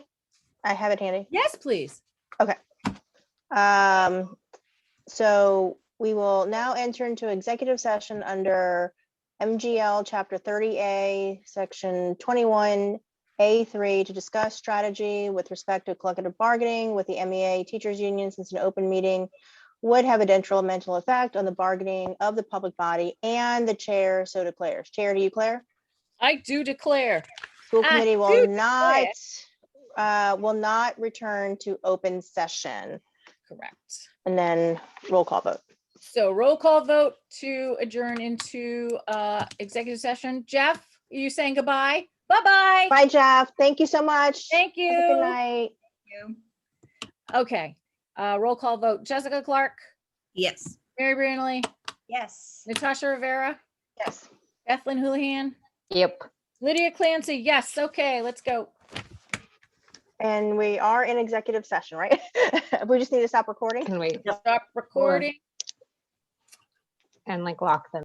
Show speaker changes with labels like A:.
A: I have it handy.
B: Yes, please.
A: Um, so we will now enter into executive session under MGL Chapter thirty A, Section twenty-one A three to discuss strategy with respect to collective bargaining with the MEA teachers union since an open meeting would have a detrimental effect on the bargaining of the public body and the chair so declares. Chair, do you declare?
B: I do declare.
A: School
B: I
A: committee
B: do
A: will not, uh, will not return to open session.
B: Correct.
A: And then roll call vote.
B: So roll call vote to adjourn into uh executive session. Jeff, are you saying goodbye? Bye-bye.
A: Bye, Jeff. Thank you so much.
B: Thank
A: Have a Good
B: you.
A: night.
B: Okay, uh, roll call vote. Jessica Clark,
C: Yes.
B: Mary Branley,
C: Yes.
B: Natasha Rivera,
A: Yes.
B: Ethlyn Houlihan,
D: Yep.
B: Lydia Clancy. Yes, okay, let's go.
A: And we are in executive session, right? We just need to stop recording.
D: Can wait
B: Stop recording.
D: and like lock them.